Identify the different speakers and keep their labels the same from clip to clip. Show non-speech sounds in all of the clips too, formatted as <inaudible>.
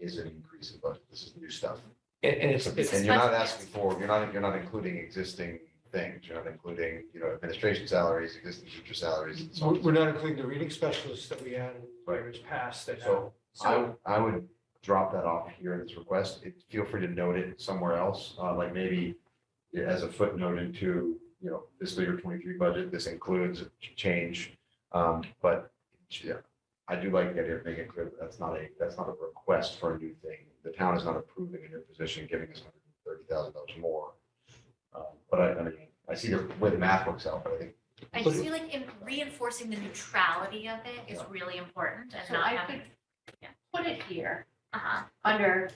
Speaker 1: is an increase in budget. This is new stuff.
Speaker 2: And, and it's, it's,
Speaker 1: And you're not
Speaker 3: special
Speaker 1: asking for, you're not, you're not including existing things. You're not including, you know, administration salaries, existing teacher salaries. and so on
Speaker 4: We're
Speaker 1: and so
Speaker 4: we're not including the reading specialists that we added in
Speaker 1: Right.
Speaker 4: years past that now.
Speaker 1: So I, I would drop that off here in this request. It- Feel free to note it somewhere else, uh, like maybe as a footnote into, you know, fiscal year twenty-three budget, this includes a ch- change. Um, but yeah, I do like the idea of making it clear that that's not a, that's not a request for a new thing. The town is not approving a new position, giving us hundred and thirty thousand dollars more. Um, But I, I mean, I see the way the math works out, but I think,
Speaker 3: I just feel like in- reinforcing the neutrality of it is really important and
Speaker 5: So
Speaker 3: not
Speaker 5: I
Speaker 3: having,
Speaker 5: could put it here
Speaker 3: uh-huh.
Speaker 5: under,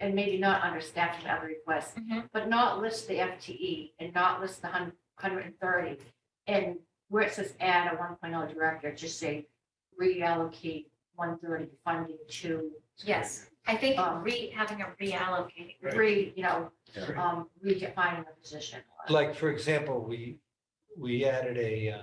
Speaker 5: and maybe not under staff salary requests,
Speaker 3: Mhm.
Speaker 5: but not list the FTE and not list the hun- hundred and thirty. And where it says add a one oh director, just say reallocate one thirty funding to
Speaker 3: Yes, I think
Speaker 5: Um,
Speaker 3: re, having a reallocate,
Speaker 5: re, you know,
Speaker 1: Right.
Speaker 5: um, redefining the position.
Speaker 4: Like, for example, we, we added a uh,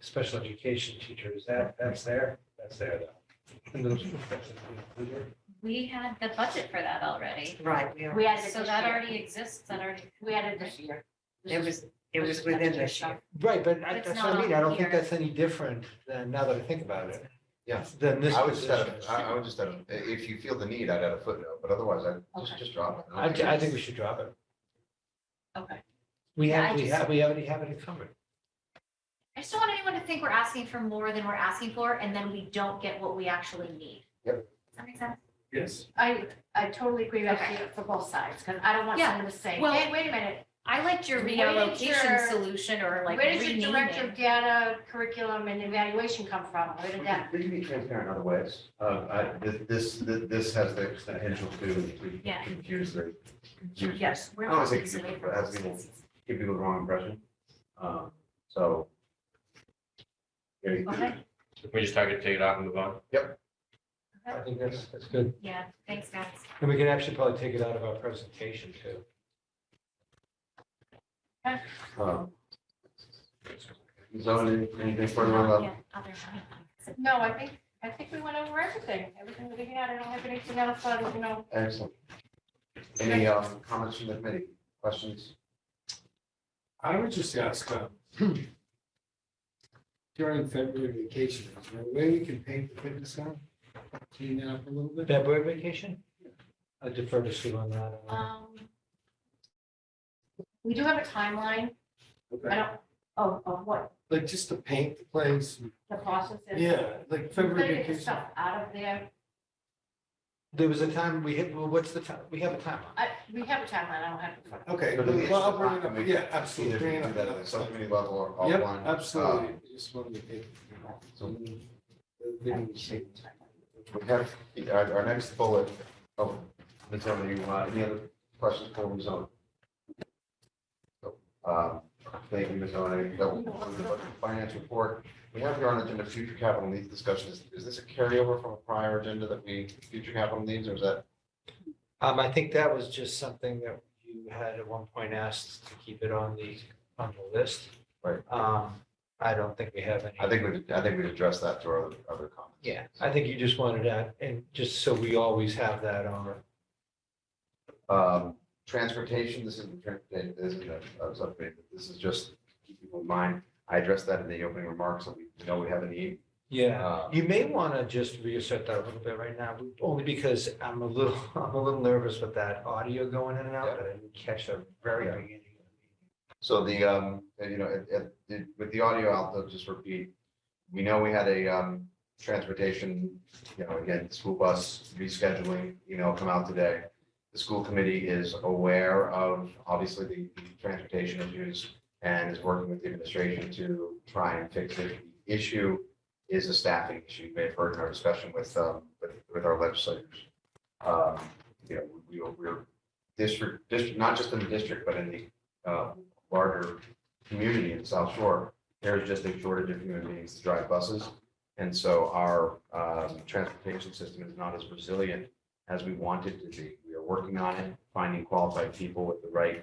Speaker 4: special education teacher. Is that, that's there? That's there though. And those professors included.
Speaker 3: we had the budget for that already.
Speaker 6: Right, we are.
Speaker 5: We added it
Speaker 3: So
Speaker 5: this
Speaker 3: that
Speaker 5: year.
Speaker 3: already exists, that already,
Speaker 5: We added this year. This
Speaker 6: It
Speaker 5: is-
Speaker 6: was, it was within this year.
Speaker 4: Right, but I-
Speaker 3: It's
Speaker 4: that's what I
Speaker 3: not
Speaker 4: mean. I don't
Speaker 3: here.
Speaker 4: think that's any different than, now that I think about it.
Speaker 1: Yeah.
Speaker 4: Than this <laughs>
Speaker 1: I would just, add
Speaker 4: position.
Speaker 1: a- I I would just, add a- if you feel the need, I'd add a footnote, but otherwise I'd just,
Speaker 5: Okay.
Speaker 1: just drop it.
Speaker 4: I, I think we should drop it.
Speaker 5: Okay.
Speaker 4: We
Speaker 3: Yeah,
Speaker 4: have,
Speaker 3: I
Speaker 4: we
Speaker 3: just-
Speaker 4: have, we already have it encumbered.
Speaker 3: I just don't want anyone to think we're asking for more than we're asking for, and then we don't get what we actually need.
Speaker 1: Yep.
Speaker 3: Does that make sense?
Speaker 4: Yes.
Speaker 5: I, I totally agree with
Speaker 3: Okay.
Speaker 5: you for both sides, because I don't want
Speaker 3: Yeah.
Speaker 5: someone to say,
Speaker 3: Well,
Speaker 5: hey, wait a minute.
Speaker 3: I liked your
Speaker 5: Where did your-
Speaker 3: reallocation solution or like
Speaker 5: Where did your director
Speaker 3: renaming.
Speaker 5: of data, curriculum, and evaluation come from? Where did
Speaker 1: We
Speaker 5: that?
Speaker 1: can- We can be transparent other ways. Uh, I, this- this, this, this has the potential to
Speaker 3: Yeah.
Speaker 1: confuse the, confuse-
Speaker 3: Yes. we're
Speaker 1: I don't
Speaker 3: not
Speaker 1: think
Speaker 3: taking
Speaker 1: people-
Speaker 3: away from
Speaker 1: that's
Speaker 3: those
Speaker 1: people-
Speaker 3: things.
Speaker 1: give people the wrong impression. Um, so.
Speaker 5: Okay.
Speaker 7: We just target, take it off and move on.
Speaker 4: I think that's, that's good.
Speaker 3: Yeah, thanks, guys.
Speaker 4: And we can actually probably take it out of our presentation too.
Speaker 1: um, Zoe, anything further on that?
Speaker 3: Yeah, other one.
Speaker 5: No, I think, I think we went over everything, everything that we had, I don't have anything else, on, you know,
Speaker 1: Excellent. Any, um, comments from the committee? Questions?
Speaker 8: I would just ask, um, <clears throat> during February vacation, is there a way we can paint the fitness center? Clean that up a little bit?
Speaker 4: February vacation? I defer to Sue on that.
Speaker 5: um. We do have a timeline, I
Speaker 8: Okay.
Speaker 5: don't, oh, of what
Speaker 8: Like just to paint the place.
Speaker 5: the process is.
Speaker 8: Yeah, like February
Speaker 5: Clear the
Speaker 8: vacation.
Speaker 5: stuff out of there,
Speaker 4: There was a time we hit, well, what's the time? We have a timeline.
Speaker 5: I, we have a timeline, I don't have. it.
Speaker 8: Okay,
Speaker 1: But it's-
Speaker 8: well, I'll bring it
Speaker 1: I mean,
Speaker 8: up, yeah,
Speaker 1: Either
Speaker 8: absolutely.
Speaker 1: do
Speaker 8: bring it up
Speaker 1: that at the
Speaker 8: another time.
Speaker 1: subcommittee level or Uh,
Speaker 8: Yep,
Speaker 1: offline.
Speaker 8: absolutely. Just wanted to paint.
Speaker 1: So-
Speaker 8: Then-
Speaker 1: We have, our, our next bullet, oh, Ms. Emily, you, uh, any other questions for Ms. Owen? Um, Thank you, Ms. Owen, that will conclude the budget and finance report. We have here on the agenda future capital needs discussion, is, is this a carryover from a prior agenda that we, future capital needs, or is that?
Speaker 4: Um, I think that was just something that you had at one point asked to keep it on the, on the list.
Speaker 1: Right.
Speaker 4: Um, I don't think we have any.
Speaker 1: I think we, I think we addressed that to our other- other comments.
Speaker 4: Yeah, I think you just wanted that, and just so we always have that on.
Speaker 1: Um, transportation, this isn't, transportation, this isn't, a- a subcommittee, but this is just keeping in mind, I addressed that in the opening remarks, that we know we have a need.
Speaker 4: Yeah.
Speaker 1: Uh,
Speaker 4: You may want to just reassert that a little bit right now, only because I'm a little, <laughs> I'm a little nervous with that audio going in and out, but I didn't catch the very
Speaker 1: Yeah.
Speaker 4: beginning.
Speaker 1: So the, um, and, you know, it- it- it- with the audio out, I'll just repeat, we know we had a, um, transportation, you know, again, school bus rescheduling, you know, come out today. The school committee is aware of, obviously, the the transportation issues and is working with the administration to try and fix it. The Issue is a staffing issue. You may have heard in our discussion with, um, with, with our legislators. Um, you know, we, we- we're district, district, not just in the district, but in the, uh, larger community in South Shore, there's just a shortage of human beings to drive buses. And so our um, transportation system is not as resilient as we want it to be. We are working on it. Finding qualified people with the right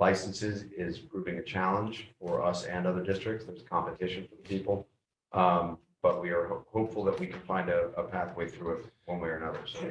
Speaker 1: licenses is proving a challenge for us and other districts. There's competition for the people. Um, But we are ho- hopeful that we can find a a pathway through it one way or another. So